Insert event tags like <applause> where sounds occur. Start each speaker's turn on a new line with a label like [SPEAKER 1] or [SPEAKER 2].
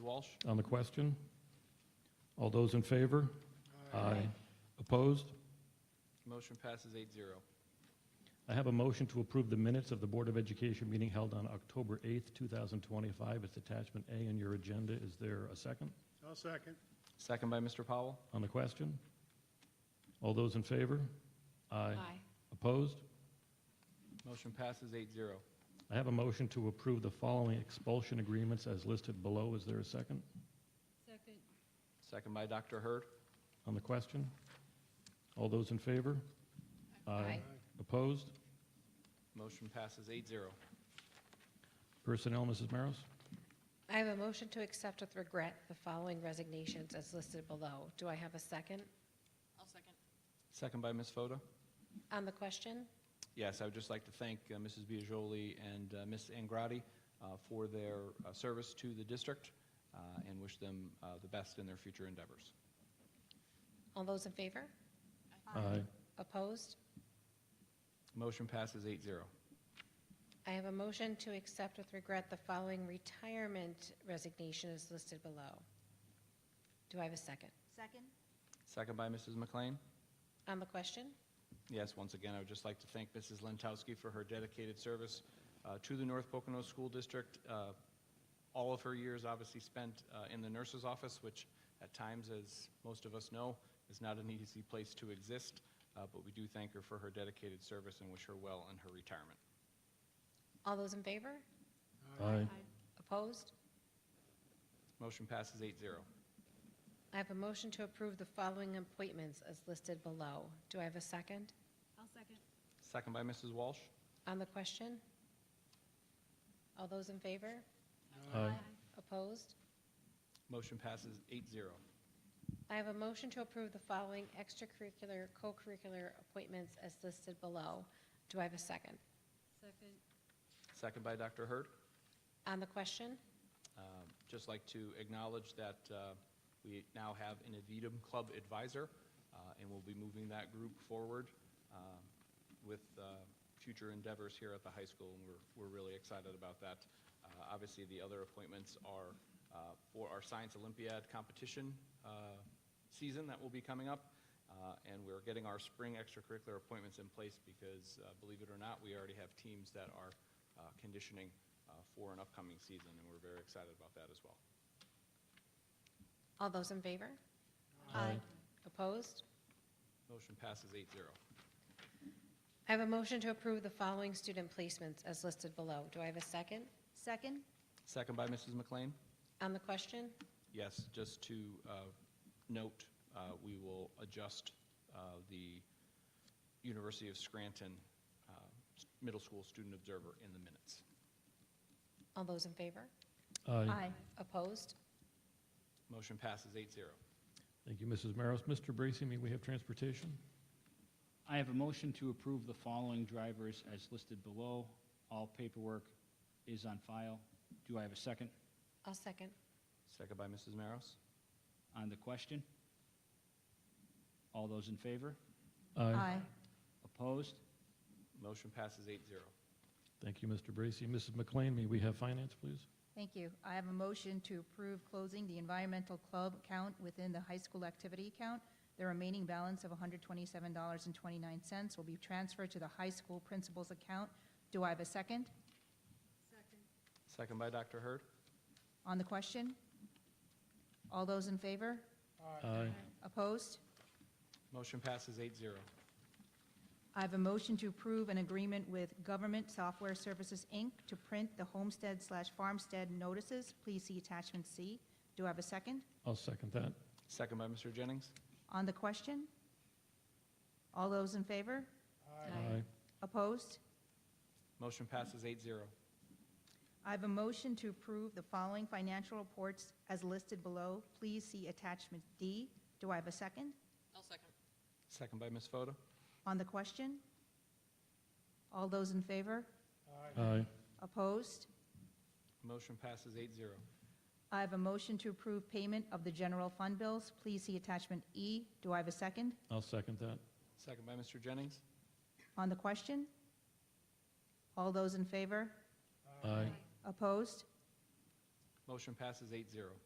[SPEAKER 1] Walsh?
[SPEAKER 2] on the question? All those in favor? Aye. Opposed?
[SPEAKER 1] Motion passes eight zero.
[SPEAKER 2] I have a motion to approve the minutes of the Board of Education meeting held on October 8th, 2025. It's attachment A in your agenda. Is there a second
[SPEAKER 3] I'll second.
[SPEAKER 1] Second by Mr. Powell.
[SPEAKER 2] on the question? All those in favor? Aye. Opposed?
[SPEAKER 1] Motion passes eight zero.
[SPEAKER 2] I have a motion to approve the following expulsion agreements as listed below. Is there a second
[SPEAKER 4] Second.
[SPEAKER 1] Second by Dr. Hurd.
[SPEAKER 2] on the question? All those in favor?
[SPEAKER 4] Aye.
[SPEAKER 2] Opposed?
[SPEAKER 1] Motion passes eight zero.
[SPEAKER 2] Personnel, Mrs. Maros?
[SPEAKER 4] I have a motion to accept with regret the following resignations as listed below. Do I have a second
[SPEAKER 5] I'll second.
[SPEAKER 1] Second by Ms. Fota.
[SPEAKER 4] on the question?
[SPEAKER 1] Yes, I would just like to thank uh, Mrs. Biagioli and uh, Ms. Angrotti uh, for their uh, service to the district uh, and wish them uh, the best in their future endeavors.
[SPEAKER 4] All those in favor?
[SPEAKER 2] Aye.
[SPEAKER 4] Opposed?
[SPEAKER 1] Motion passes eight zero.
[SPEAKER 4] I have a motion to accept with regret the following retirement resignation as listed below. Do I have a second?
[SPEAKER 5] Second?
[SPEAKER 1] Second by Mrs. McLean.
[SPEAKER 4] On the question?
[SPEAKER 1] Yes, once again, I would just like to thank Mrs. Lentowski for her dedicated service uh, to the North Pocono School District. Uh, All of her years obviously spent uh, in the nurse's office, which at times, as most of us know, is not an <laughs> easy place to exist, Uh, but we do thank her for her dedicated service and wish her well in her retirement.
[SPEAKER 4] All those in favor?
[SPEAKER 2] Aye.
[SPEAKER 4] Opposed?
[SPEAKER 1] Motion passes eight zero.
[SPEAKER 4] I have a motion to approve the following appointments as listed below. Do I have a second
[SPEAKER 5] I'll second.
[SPEAKER 1] Second by Mrs. Walsh.
[SPEAKER 4] on the question? All those in favor?
[SPEAKER 2] Aye.
[SPEAKER 4] Opposed?
[SPEAKER 1] Motion passes eight zero.
[SPEAKER 4] I have a motion to approve the following extracurricular, co-curricular appointments as listed below. Do I have a second?
[SPEAKER 5] Second.
[SPEAKER 1] Second by Dr. Hurd.
[SPEAKER 4] On the question?
[SPEAKER 1] Um, Just like to acknowledge that uh, we now have an Avidum Club advisor, uh, and we'll be moving that group forward um, with uh, future endeavors here at the high school, and we're- we're really excited about that. Uh, Obviously, the other appointments are uh, for our Science Olympiad competition uh, season that will be coming up, uh, and we're getting our spring extracurricular appointments in place because, uh, believe it or not, we already have teams that are uh, conditioning uh, for an upcoming season, and we're very excited about that as well.
[SPEAKER 4] All those in favor?
[SPEAKER 2] Aye.
[SPEAKER 4] Opposed?
[SPEAKER 1] Motion passes eight zero.
[SPEAKER 4] I have a motion to approve the following student placements as listed below. Do I have a second?
[SPEAKER 5] Second?
[SPEAKER 1] Second by Mrs. McLean.
[SPEAKER 4] On the question?
[SPEAKER 1] Yes, just to uh, note, uh, we will adjust uh, the University of Scranton uh, s- Middle School Student Observer in the minutes.
[SPEAKER 4] All those in favor?
[SPEAKER 2] Aye.
[SPEAKER 4] Opposed?
[SPEAKER 1] Motion passes eight zero.
[SPEAKER 2] Thank you, Mrs. Maros. Mr. Bracy, may we have transportation?
[SPEAKER 6] I have a motion to approve the following drivers as listed below. All paperwork is on file. Do I have a second
[SPEAKER 4] I'll second.
[SPEAKER 1] Second by Mrs. Maros.
[SPEAKER 6] on the question? All those in favor? Opposed?
[SPEAKER 1] Motion passes eight zero.
[SPEAKER 2] Thank you, Mr. Bracy. Mrs. McLean, may we have finance, please?
[SPEAKER 7] Thank you. I have a motion to approve closing the environmental club account within the high school activity account. The remaining balance of $127.29 will be transferred to the high school principal's account. Do I have a second
[SPEAKER 5] Second.
[SPEAKER 1] Second by Dr. Hurd.
[SPEAKER 7] on the question? All those in favor?
[SPEAKER 2] Aye.
[SPEAKER 7] Opposed?
[SPEAKER 1] Motion passes eight zero.
[SPEAKER 7] I have a motion to approve an agreement with Government Software Services, Inc. to print the homestead slash farmstead notices. Please see attachment C. Do I have a second
[SPEAKER 2] I'll second that.
[SPEAKER 1] Second by Mr. Jennings.
[SPEAKER 7] on the question? All those in favor?
[SPEAKER 2] Aye.
[SPEAKER 7] Opposed?
[SPEAKER 1] Motion passes eight zero.
[SPEAKER 7] I have a motion to approve the following financial reports as listed below. Please see attachment D. Do I have a second
[SPEAKER 5] I'll second.
[SPEAKER 1] Second by Ms. Fota.
[SPEAKER 7] on the question? All those in favor?
[SPEAKER 2] Aye.
[SPEAKER 7] Opposed?
[SPEAKER 1] Motion passes eight zero.
[SPEAKER 7] I have a motion to approve payment of the general fund bills. Please see attachment E. Do I have a second
[SPEAKER 2] I'll second that.
[SPEAKER 1] Second by Mr. Jennings.
[SPEAKER 7] on the question? All those in favor?
[SPEAKER 2] Aye.
[SPEAKER 7] Opposed?
[SPEAKER 1] Motion passes eight zero.